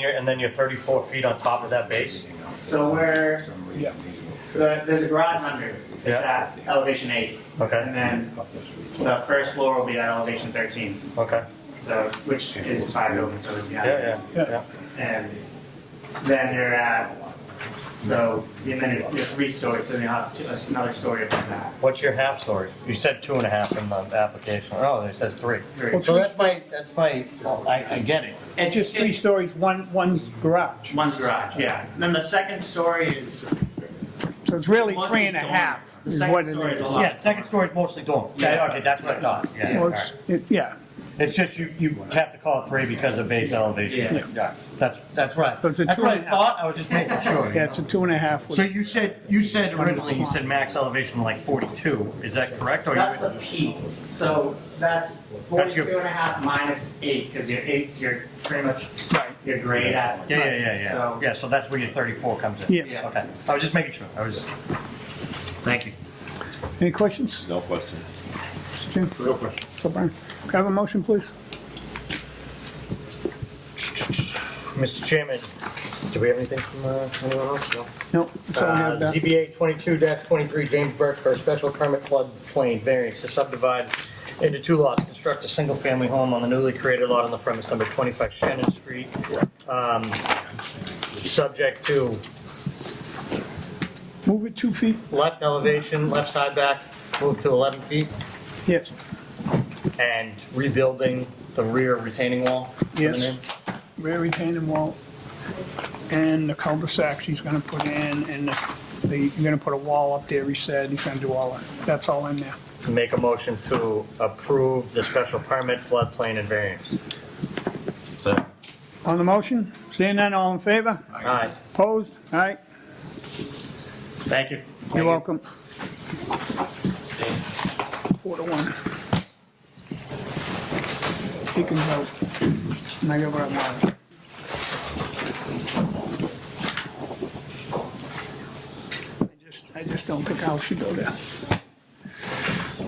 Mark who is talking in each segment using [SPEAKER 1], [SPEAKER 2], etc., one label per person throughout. [SPEAKER 1] you're- and then you're thirty-four feet on top of that base?
[SPEAKER 2] So where
[SPEAKER 3] Yeah.
[SPEAKER 2] the, there's a garage under, it's at elevation eight,
[SPEAKER 1] Okay,
[SPEAKER 2] and then the first floor will be at elevation thirteen.
[SPEAKER 1] okay,
[SPEAKER 2] So which is five buildings so it's
[SPEAKER 1] yeah,
[SPEAKER 2] behind.
[SPEAKER 1] yeah, yeah,
[SPEAKER 3] Yeah.
[SPEAKER 2] And then you're at so and then you're, you're three stories, so you have two, another story above that.
[SPEAKER 1] what's your half story? You said two and a half in the application, oh, it says three.
[SPEAKER 2] Three.
[SPEAKER 1] So that's my, that's my, I, I get it,
[SPEAKER 2] It's
[SPEAKER 3] Just three
[SPEAKER 2] it's-
[SPEAKER 3] stories, one, one's garage.
[SPEAKER 2] One's garage, yeah. And then the second story is
[SPEAKER 3] So it's really
[SPEAKER 2] Mostly
[SPEAKER 3] three and a
[SPEAKER 2] dorm.
[SPEAKER 3] half
[SPEAKER 2] The
[SPEAKER 3] is
[SPEAKER 2] second
[SPEAKER 3] what it
[SPEAKER 2] story is
[SPEAKER 3] is.
[SPEAKER 2] a lot.
[SPEAKER 1] yeah, second story's mostly dorm, yeah, okay, that's what I thought, yeah.
[SPEAKER 3] Well,
[SPEAKER 1] all
[SPEAKER 3] it's,
[SPEAKER 1] right.
[SPEAKER 3] it, yeah,
[SPEAKER 1] It's just you, you have to call it three because of base elevation,
[SPEAKER 2] Yeah.
[SPEAKER 1] yeah, that's, that's right.
[SPEAKER 3] So it's a
[SPEAKER 1] That's
[SPEAKER 3] two
[SPEAKER 1] what
[SPEAKER 3] and
[SPEAKER 1] I
[SPEAKER 3] a half.
[SPEAKER 1] thought, I was just making sure.
[SPEAKER 3] yeah, it's a two and a half. with-
[SPEAKER 1] So you said, you said originally, you said max elevation like forty-two, is that correct? or you-
[SPEAKER 2] That's the peak. So that's
[SPEAKER 1] That's your-
[SPEAKER 2] forty-two and a half minus eight, because your eight's your, pretty much
[SPEAKER 1] Right.
[SPEAKER 2] your grade at.
[SPEAKER 1] Yeah, yeah, yeah, yeah.
[SPEAKER 2] So-
[SPEAKER 1] Yeah, so that's where your 34 comes in?
[SPEAKER 3] Yes.
[SPEAKER 1] Okay. I was just making sure. I was, thank you.
[SPEAKER 3] Any questions,
[SPEAKER 4] No question.
[SPEAKER 3] Jim?
[SPEAKER 4] No question.
[SPEAKER 3] So Brian, can I have a motion, please?
[SPEAKER 1] Mr. Chairman, do we have anything from uh, anyone else? No.
[SPEAKER 3] No, so we have
[SPEAKER 1] Uh,
[SPEAKER 3] that.
[SPEAKER 1] ZBA 22-23 James Burke for a special permit floodplain variance to subdivide into two lots, construct a single-family home on the newly created lot on the premise number 25 Shannon Street, um, subject to
[SPEAKER 3] Move it two feet,
[SPEAKER 1] left elevation, left side back, move to 11 feet,
[SPEAKER 3] yes,
[SPEAKER 1] and rebuilding the rear retaining wall. for the
[SPEAKER 3] Yes.
[SPEAKER 1] name.
[SPEAKER 3] rear retaining wall, and the cul-de-sacs he's gonna put in, and the, you're gonna put a wall up there, he said, he's gonna do all that, that's all in there.
[SPEAKER 1] Make a motion to approve the special permit floodplain and variance.
[SPEAKER 3] On the motion, seeing none, all in favor?
[SPEAKER 1] All right,
[SPEAKER 3] Opposed? All right,
[SPEAKER 1] thank you.
[SPEAKER 3] you're welcome. Four to one. He can vote. And I got what I want. I just, I just don't think I should go there.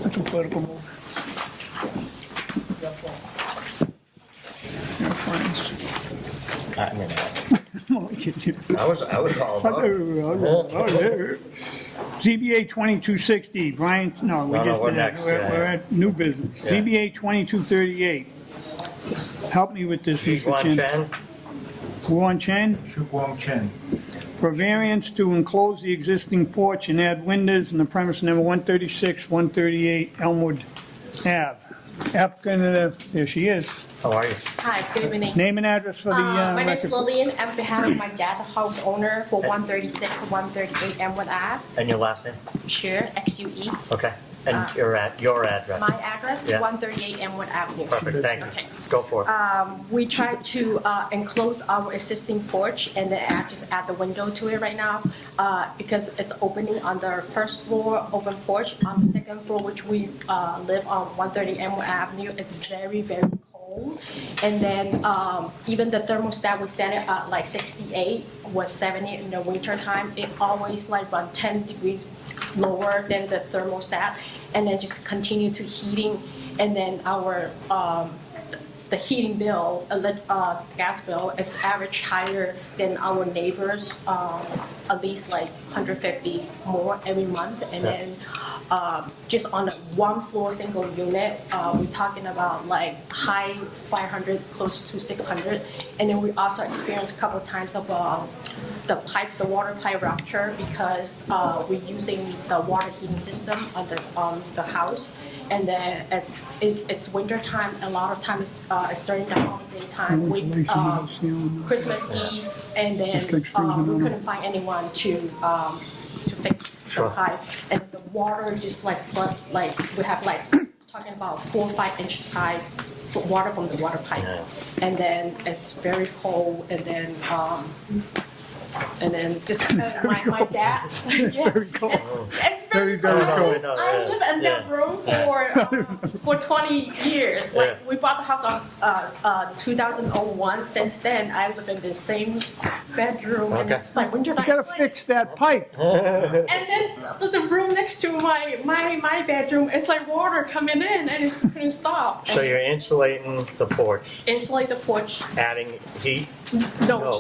[SPEAKER 3] That's a political move. Your fault. Your friends.
[SPEAKER 1] I mean,
[SPEAKER 3] No, I can't do that.
[SPEAKER 1] I was, I was all about it. Oh.
[SPEAKER 3] ZBA 2260, Brian, no, we
[SPEAKER 1] No, no,
[SPEAKER 3] just
[SPEAKER 1] we're
[SPEAKER 3] did that.
[SPEAKER 1] next,
[SPEAKER 3] We're
[SPEAKER 1] yeah.
[SPEAKER 3] we're at new business.
[SPEAKER 1] Yeah.
[SPEAKER 3] ZBA 2238. Help me with this, Mr.
[SPEAKER 1] Guan
[SPEAKER 3] Chen.
[SPEAKER 1] Chen,
[SPEAKER 3] Guan Chen,
[SPEAKER 5] Shu Guang Chen.
[SPEAKER 3] for variance to enclose the existing porch and add windows in the premise number 136, 138 Elmwood Ave. Applicant, uh, there she is.
[SPEAKER 1] how are you?
[SPEAKER 6] Hi, good evening.
[SPEAKER 3] Name and address for the
[SPEAKER 6] Uh,
[SPEAKER 3] uh,
[SPEAKER 6] My name is
[SPEAKER 3] record.
[SPEAKER 6] Lillian. I'm behalf of my dad, the house owner for 136 to 138 Elmwood Ave,
[SPEAKER 1] And your last name?
[SPEAKER 6] Sure, XUE.
[SPEAKER 1] Okay. And your at, your address?
[SPEAKER 6] Uh, My address is
[SPEAKER 1] Yeah.
[SPEAKER 6] 138 Elmwood Avenue.
[SPEAKER 1] Perfect, thank you.
[SPEAKER 6] Okay. Uh,
[SPEAKER 1] Go for it.
[SPEAKER 6] We try to uh, enclose our existing porch and then add- just add the window to it right now uh, because it's opening on the first floor, open porch. On the second floor, which we uh, live on 130 Elmwood Avenue, it's very, very cold. And then um, even the thermostat, we set it at like 68, was 70 in the winter time. It always like run 10 degrees lower than the thermostat. And then just continue to heating. And then our the heating bill, elec- uh, gas bill, it's average higher than our neighbors, um, at least like 150 more every month. And
[SPEAKER 1] Yeah.
[SPEAKER 6] then um, just on a one floor, single unit, uh, we're talking about like high 500, close to 600. And then we also experienced a couple of times of um, the pipe, the water pipe rupture because uh, we're using the water heating system on the, on the house. And then it's, it, it's winter time, a lot of times uh, it's during the holiday time, we, um, Christmas Eve, and
[SPEAKER 3] It's
[SPEAKER 6] then
[SPEAKER 3] like
[SPEAKER 6] um,
[SPEAKER 3] freezing
[SPEAKER 6] we
[SPEAKER 3] on.
[SPEAKER 6] couldn't find anyone to, um, to fix the
[SPEAKER 1] Sure.
[SPEAKER 6] pipe. And the water just like flood, like, we have like, talking about four, five inches high f- water from the water pipe.
[SPEAKER 1] Yeah.
[SPEAKER 6] And then it's very cold, and then um, And then just, uh, my, my dad. It's very cold. It's very,
[SPEAKER 1] Very, very
[SPEAKER 6] cold.
[SPEAKER 1] cold.
[SPEAKER 6] I lived in that
[SPEAKER 1] Yeah.
[SPEAKER 6] room for, um, for twenty years. Like,
[SPEAKER 1] Yeah.
[SPEAKER 6] we bought the house on, uh, uh, two thousand oh one. Since then, I live in the same bedroom and
[SPEAKER 1] Okay.
[SPEAKER 6] it's like winter night.
[SPEAKER 3] You gotta fix that pipe.
[SPEAKER 6] And then the, the room next to my, my, my bedroom, it's like water coming in and it's couldn't stop.
[SPEAKER 1] So you're insulating the porch,
[SPEAKER 6] Insulate the porch,
[SPEAKER 1] adding heat
[SPEAKER 6] no,
[SPEAKER 1] No.